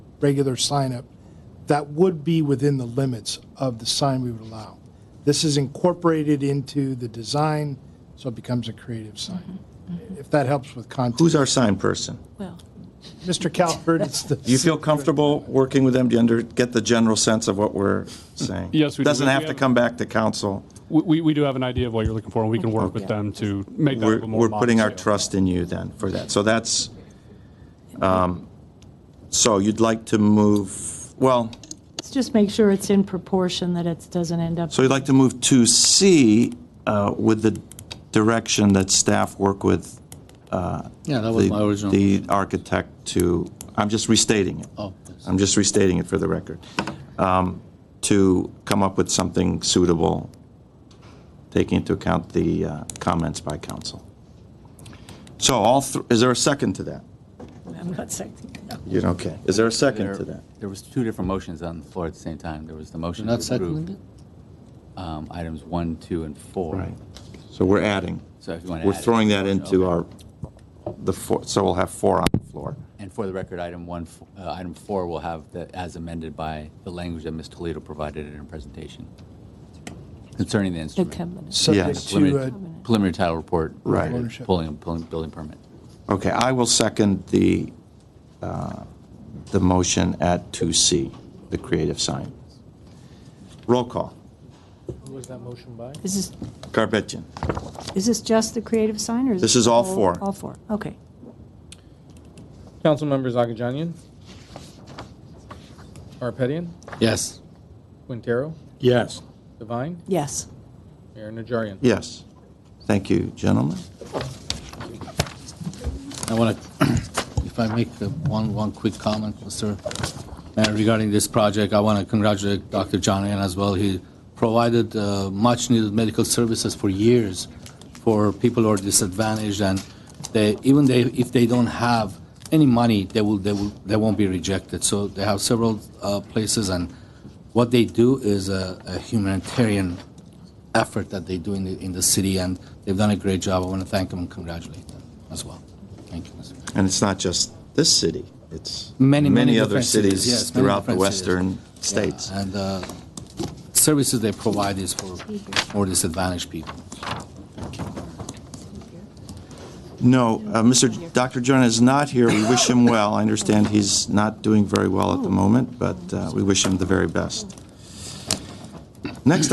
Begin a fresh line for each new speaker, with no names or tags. regular sign up, that would be within the limits of the sign we would allow. This is incorporated into the design, so it becomes a creative sign. If that helps with context.
Mm-hmm. Who's our sign person?
Well,
Mr. Calvert, it's the.
Do you feel comfortable working with them? Do you under, get the general sense of what we're saying?
Yes, we do.
Doesn't
We
have to
have-
come back to council.
We, we- we do have an idea of what you're looking for, and we can work with them to make that a
We're,
little more
we're putting our
modest, yeah.
trust in you then for that. So that's, um, so you'd like to move, well,
let's just make sure it's in proportion, that it doesn't end up,
so you'd like to move to C uh, with the direction that staff work with
Yeah, that was
the
my original.
the architect to, I'm just restating it.
Oh, yes.
I'm just restating it for the record, um, to come up with something suitable, taking into account the uh, comments by council. So all, thr- is there a second to that?
I'm not saying, no.
You, okay. Is there a second to
There-
that?
There was two different motions on the floor at the same time. There was the motion to
Not seconding
approve
it?
um, items one, two, and four.
Right. So we're adding.
So if you want to
We're throwing that into our, the four, so we'll have four on the floor.
And for the record, item one, f- uh, item four will have the, as amended by the language that Ms. Toledo provided in her presentation concerning the
the
instrument.
covenant.
Subject
Yes.
to, uh,
Preliminary preliminary title report.
Right.
Ownership.
Pulling, pulling, building permit.
Okay, I will second the, uh, the motion at 2C, the creative sign. Roll call.
Who was that motion by?
Is this,
Garbettian.
is this just the creative sign, or is
This
it
is all four.
All four, okay.
Councilmembers Agajanian, Arpetian,
Yes.
Quintero,
Yes.
Devine,
Yes.
Mayor Najarian.
Yes. Thank you, gentlemen.
I want to, if I make the one, one quick comment, Mr. Mayor, regarding this project, I want to congratulate Dr. John Ann as well. He provided uh, much-needed medical services for years for people who are disadvantaged, and they, even they, if they don't have any money, they will, they will, they won't be rejected. So they have several uh, places, and what they do is a a humanitarian effort that they do in the, in the city, and they've done a great job. I want to thank them and congratulate them as well. Thank you, Mr. Mayor.
And it's not just this city, it's
Many, many
other
different cities,
cities
yes, many
throughout the
different cities.
western states.
And uh, services they provide is for more disadvantaged people.
No, uh, Mr., J- Dr. Jonah is not here. We wish him well. I understand he's not doing very well at the moment, but uh, we wish him the very best. Next